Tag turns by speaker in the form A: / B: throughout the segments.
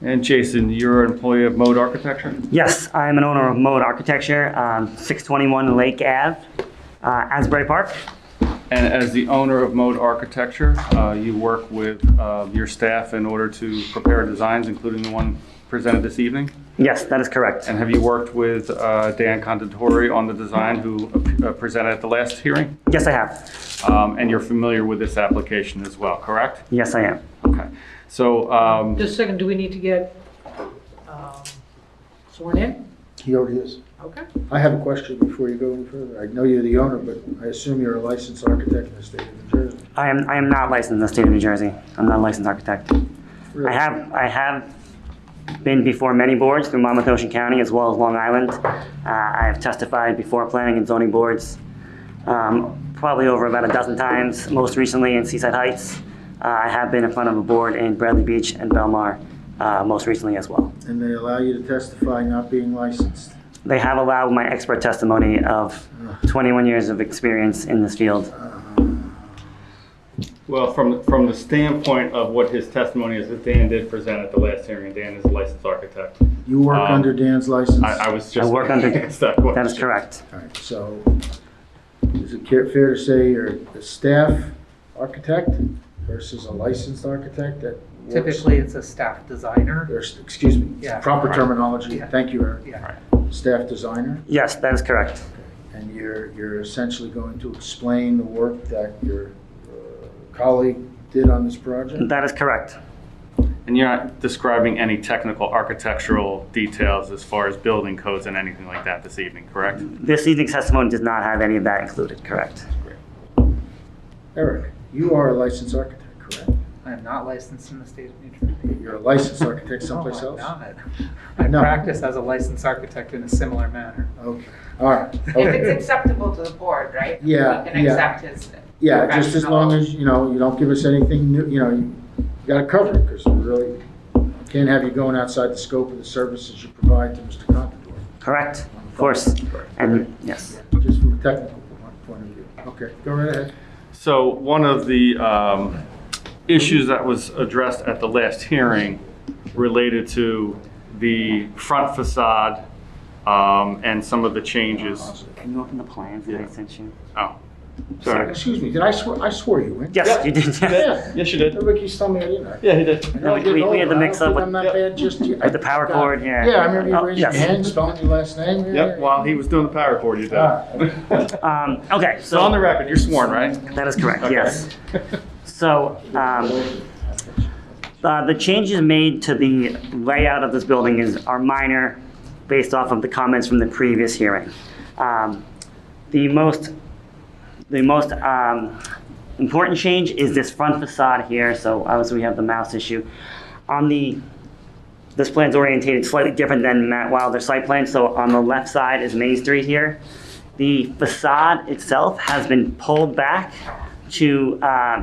A: And Jason, you're an employee of Mode Architecture?
B: Yes, I'm an owner of Mode Architecture, um, 621 Lake Ave, uh, Asbury Park.
A: And as the owner of Mode Architecture, uh, you work with uh, your staff in order to prepare designs, including the one presented this evening?
B: Yes, that is correct.
A: And have you worked with uh, Dan Conditori on the design who uh, presented at the last hearing?
B: Yes, I have.
A: Um, And you're familiar with this application as well, correct?
B: Yes, I am.
A: Okay. So um,
C: Just a second, do we need to get um, sworn in?
D: He already is.
C: Okay.
D: I have a question before you go any further. I know you're the owner, but I assume you're a licensed architect in the state of New Jersey.
B: I am, I am not licensed in the state of New Jersey. I'm not a licensed architect. I
D: Really?
B: have, I have been before many boards through Monmouth Ocean County as well as Long Island. Uh, I have testified before planning and zoning boards, um, probably over about a dozen times, most recently in Seaside Heights. Uh, I have been in front of a board in Bradley Beach and Belmar, uh, most recently as well.
D: And they allow you to testify not being licensed.
B: They have allowed my expert testimony of 21 years of experience in this field.
A: Well, from, from the standpoint of what his testimony is, that Dan did present at the last hearing, Dan is a licensed architect.
D: You work
A: Um,
D: under Dan's license?
A: I, I was just.
B: I work under-
A: Asked that question.
B: That is correct.
D: All right, so is it ca- fair to say you're a staff architect versus a licensed architect that works?
C: Typically, it's a staff designer.
D: There's- Excuse me,
C: Yeah.
D: proper terminology.
C: Yeah.
D: Thank you, Eric.
C: Yeah.
D: Staff designer?
B: Yes, that is correct.
D: And you're, you're essentially going to explain the work that your uh, colleague did on this project?
B: That is correct.
A: And you're not describing any technical architectural details as far as building codes and anything like that this evening, correct?
B: This evening's testimony does not have any of that included, correct?
D: Eric, you are a licensed architect, correct?
C: I am not licensed in the state of New Jersey.
D: You're a licensed architect someplace
C: No, I'm
D: else?
C: not. I
D: No.
C: practice as a licensed architect in a similar manner.
D: Okay, all right.
E: If it's
D: Okay.
E: acceptable to the board, right?
D: Yeah,
E: We can
D: yeah.
E: accept his.
D: Yeah, just as long as, you know, you don't give us anything new, you know, you gotta cover it, because we really can't have you going outside the scope of the services you provide to Mr. Contador.
B: Correct, of course. And, yes.
D: Just from a technical point of view. Okay, go right ahead.
A: So one of the um, issues that was addressed at the last hearing related to the front facade um, and some of the changes.
B: Can you open the plans that I sent you?
A: Oh, sorry.
D: Excuse me, did I swear, I swore you in?
B: Yes, you did, yes.
D: Yeah.
A: Yes, you did.
D: Everybody keeps telling me I didn't.
A: Yeah, he did.
B: No, we- we- we had the mix up with-
D: I'm not bad, just.
B: With the power cord, yeah.
D: Yeah, I remember you
B: Oh,
D: raised your
B: yes.
D: hand, spelling your last name. yeah,
A: Yep,
D: yeah.
A: while he was doing the power cord, you did.
B: Um, okay,
A: So on the
B: so,
A: record, you're sworn, right?
B: that is correct,
A: Okay.
B: yes. So, um, uh, the changes made to the layout of this building is, are minor based off of the comments from the previous hearing. Um, The most, the most, um, important change is this front facade here, so obviously we have the mouse issue. On the this plan's orientated slightly different than Matt Wilder's site plan, so on the left side is Main Street here. The facade itself has been pulled back to um,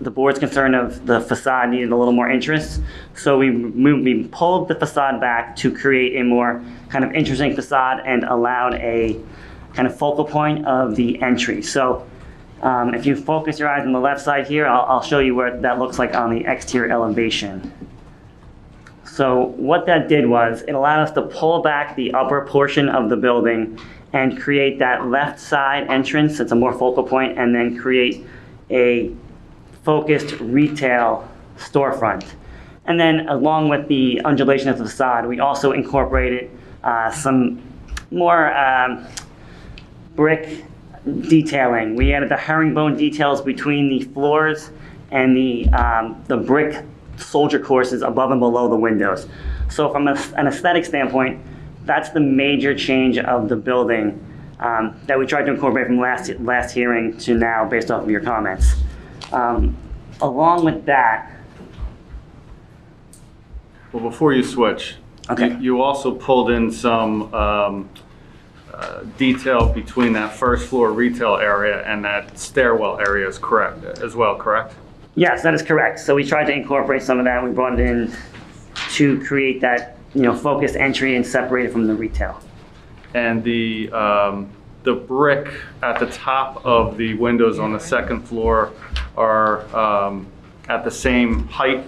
B: the board's concern of the facade needed a little more interest. So we moved, we pulled the facade back to create a more kind of interesting facade and allowed a kind of focal point of the entry. So um, if you focus your eyes on the left side here, I'll, I'll show you what that looks like on the exterior elevation. So what that did was it allowed us to pull back the upper portion of the building and create that left side entrance. It's a more focal point and then create a focused retail storefront. And then along with the undulation of the facade, we also incorporated uh, some more um, brick detailing. We added the herringbone details between the floors and the, um, the brick soldier courses above and below the windows. So from a- an aesthetic standpoint, that's the major change of the building um, that we tried to incorporate from last, last hearing to now based off of your comments. Um, Along with that,
A: Well, before you switch,
B: Okay.
A: you- you also pulled in some um, uh, detail between that first floor retail area and that stairwell area is correct, as well, correct?
B: Yes, that is correct. So we tried to incorporate some of that. We brought it in to create that, you know, focused entry and separate it from the retail.
A: And the, um, the brick at the top of the windows on the second floor are um, at the same height